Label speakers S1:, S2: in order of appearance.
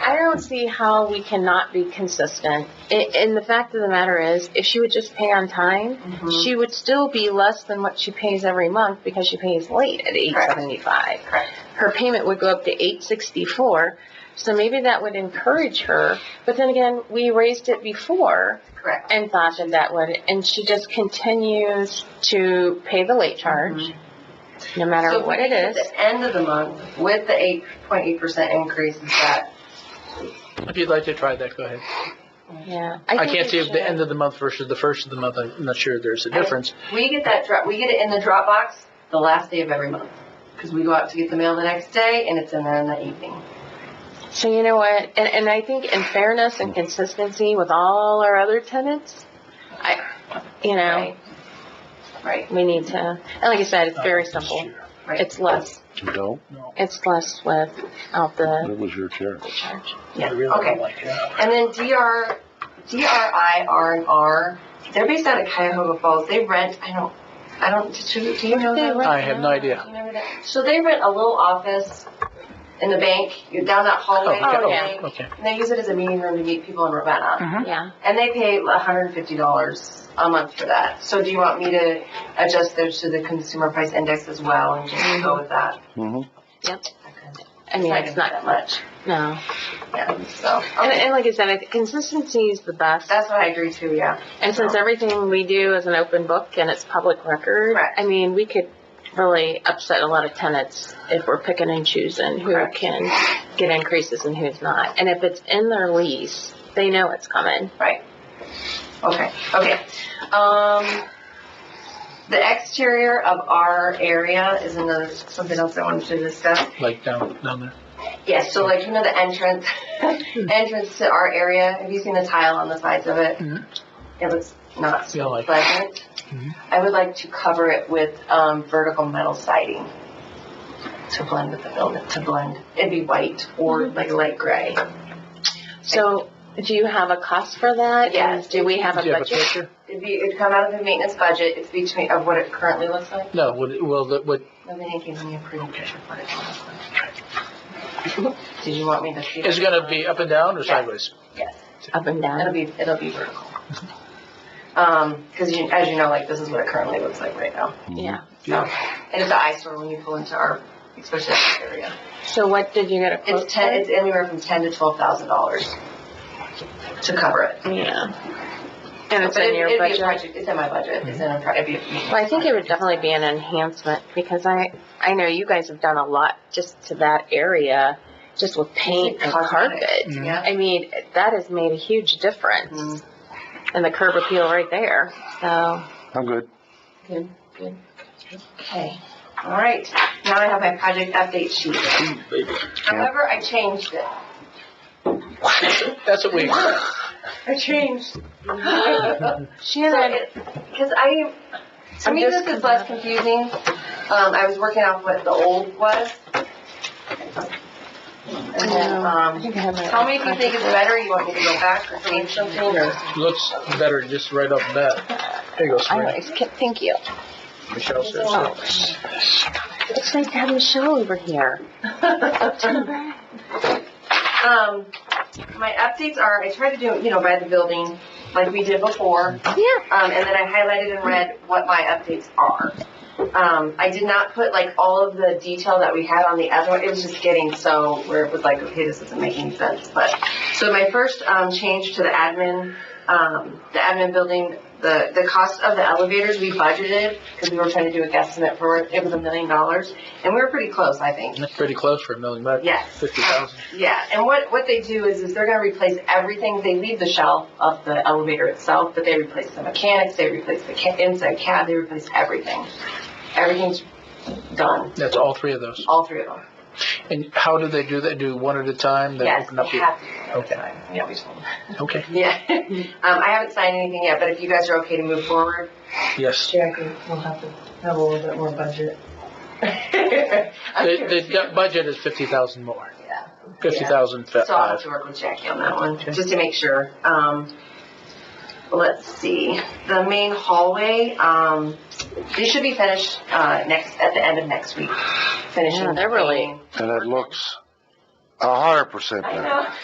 S1: don't see how we cannot be consistent. A- And the fact of the matter is, if she would just pay on time,
S2: Mm-hmm.
S1: she would still be less than what she pays every month because she pays late at eight seventy-five.
S2: Correct.
S1: Her payment would go up to eight sixty-four, so maybe that would encourage her. But then again, we raised it before
S2: Correct.
S1: and thought that that would, and she just continues to pay the late charge, no matter
S2: So
S1: what it
S2: at
S1: is.
S2: the end of the month, with the eight point eight percent increase, is that,
S3: If you'd like to try that, go ahead.
S1: Yeah.
S3: I
S1: think
S3: can't
S1: we
S3: see if the
S1: should.
S3: end of the month versus the first of the month, I'm not sure there's a difference.
S2: we get that drop, we get it in the Dropbox the last day of every month. Because we go out to get the mail the next day and it's in there in the evening.
S1: So you know what, and, and I think in fairness and consistency with all our other tenants, I, you know,
S2: Right. Right,
S1: we need to, and like I said, it's very simple.
S2: right.
S1: It's less,
S4: You don't?
S1: it's less without the
S4: It was your chair.
S1: charge.
S3: I
S2: Yeah,
S3: really
S2: okay.
S3: don't like it.
S2: And then DR, DRI, R and R, they're based out of Cuyahoga Falls. They rent, I don't, I don't, do you, do you know
S1: They
S2: them?
S1: rent
S3: I have no idea.
S2: You know that? So they rent a little office in the bank, you're down that hallway.
S1: Oh,
S2: in the
S1: yeah.
S2: bank,
S3: Okay.
S2: And they use it as a meeting room to meet people in Ravenna.
S1: Yeah,
S2: And they pay hundred and fifty dollars a month for that. So do you want me to adjust those to the consumer price index as well and just go with that?
S4: Mm-hmm.
S1: I mean, it's
S2: gonna be
S1: not,
S2: that much.
S1: no.
S2: Yeah, so,
S1: And,
S2: okay.
S1: and like I said, I think consistency is the best.
S2: that's what I agree to, yeah.
S1: And since everything we do is an open book and it's public record,
S2: Correct.
S1: I mean, we could really upset a lot of tenants if we're picking and choosing who
S2: Correct.
S1: can get increases and who's not. And if it's in their lease, they know it's coming.
S2: Okay, okay. Um, the exterior of our area is another, something else I wanted to discuss.
S3: Like down, down there.
S2: Yes, so like, you know, the entrance, entrance to our area, have you seen the tile on the sides of it?
S3: Mhm.
S2: It looks not
S3: Yeah, like-
S2: pleasant.
S3: Mhm.
S2: I would like to cover it with, um, vertical metal siding to blend with the building, to blend. It'd be white or like light gray.
S1: So do you have a cost for that?
S2: Yes.
S1: And Do we have a
S3: Do you have a
S1: budget?
S3: picture?
S2: It'd be, it'd come out of the maintenance budget, it's between, of what it currently looks like.
S3: No, what, well, the- what,
S2: Nobody gave me a pretty picture for it. Did you want me to see?
S3: is it gonna be up and down or
S2: Yes.
S3: sideways?
S1: Up and down?
S2: It'll be, it'll be vertical. Um, cause you, as you know, like, this is what it currently looks like right now.
S1: Yeah.
S2: So, and it's an eyesore when you pull into our, especially this area.
S1: So what did you get a quote
S2: It's ten, it's anywhere from ten to twelve thousand dollars to cover it.
S1: for? Yeah. And it's
S2: But
S1: in
S2: it'd-
S1: your
S2: it'd be a
S1: budget?
S2: project- It's in my budget, it's in a, pro- it'd be. a-
S1: Well, I think it would definitely be an enhancement because I, I know you guys have done a lot just to that area, just with paint and
S2: Cosmetic.
S1: carpet.
S3: Mhm.
S2: Yeah,
S1: I mean, that has made a huge difference. And the curb appeal right there, so.
S4: I'm good.
S2: okay, all right, now I have my project update sheet. However, I changed it.
S3: That's what we,
S2: I changed. Because
S1: Shannon,
S2: I, to
S1: I'm
S2: me,
S1: just-
S2: this is less confusing. Um, I was working off what the old was. And then,
S1: I
S2: um,
S1: think I have my.
S2: tell me if you think it's better, you want me to go back or change something, or
S3: looks better just right off the bat. There you go,
S1: I
S3: Sabrina.
S1: always ca- thank you.
S3: Michelle says.
S1: Oh, sh- It's nice to have Michelle over here.
S2: Um, my updates are, I tried to do, you know, by the building, like we did before.
S1: Yeah.
S2: Um, and then I highlighted in red what my updates are. Um, I did not put like all of the detail that we had on the other one. It was just getting so where it was like, okay, this isn't making sense. But so my first um, change to the admin, um, the admin building, the the cost of the elevators we budgeted because we were trying to do a guesstimate for it. It was a million dollars, and we were pretty close, I think.
S3: That's pretty close for a million bucks.
S2: Yes.
S3: Fifty thousand.
S2: Yeah, and what, what they do is, is they're gonna replace everything, they leave the shell of the elevator itself, but they replace the mechanics, they replace the ca- inside cab, they replace everything. Everything's done,
S3: That's all three of those.
S2: all three of them.
S3: And how do they do that? Do one at a time? They
S2: Yes,
S3: open up
S2: they
S3: the-
S2: have to.
S3: Okay.
S2: Yeah, we told them.
S3: Okay,
S2: Yeah, um, I haven't signed anything yet, but if you guys are okay to move forward.
S3: yes.
S2: Jackie, we'll have to have a little bit more budget. I'm
S3: The,
S2: curious.
S3: the du- budget is fifty thousand more.
S2: Yeah.
S3: Fifty thousand uh,
S2: So I'll have
S3: five.
S2: to work with Jackie on that one, just to make sure. Um, let's see, the main hallway, um, they should be finished, uh, next, at the end of next week, finishing.
S1: Yeah, they're really-
S2: painting.
S4: And it looks a hundred percent
S2: I
S4: better.
S2: know.